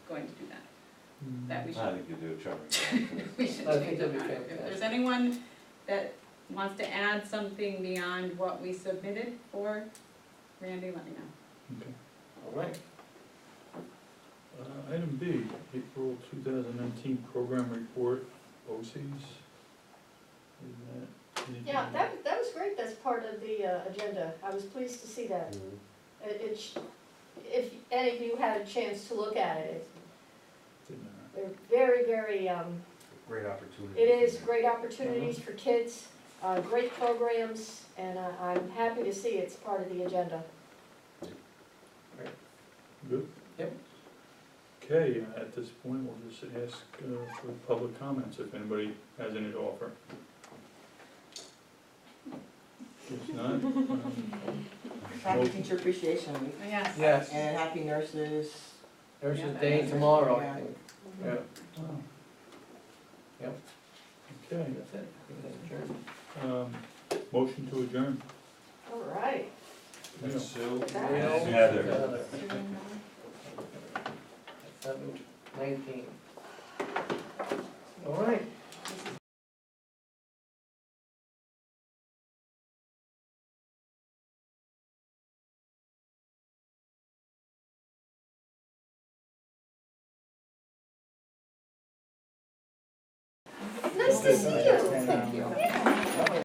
going to do that, Mm. that we I should, think you do a charming job. we should I change think it that'd be on it. If there's fantastic. anyone that wants to add something beyond what we submitted for, Randy, let me know. All right, Uh, Item B, April 2019 Program Report, OCs. Isn't that anything- Yeah, that, that was great, that's part of the uh, agenda, I was pleased to see that. It, it sh- if any of you had a chance to look at it, it's- Didn't matter. they're very, very, um, Great opportunity. it is great opportunities for kids, uh, great programs, and I- I'm happy to see it's part of the agenda. Good? Yep. Okay, at this point, we'll just ask uh, for public comments if anybody has any to offer. If not, um, Happy Teacher Appreciation Week, Oh, Yes. yes, and Happy Nurses. there's Yeah, a that day is- tomorrow, I think. yeah. Yep. Okay, That's it. Give that a turn. um, motion to adjourn. All right. Yeah. Sue? Well, Heather. Heather. Seven nineteen. All right. Nice to see you.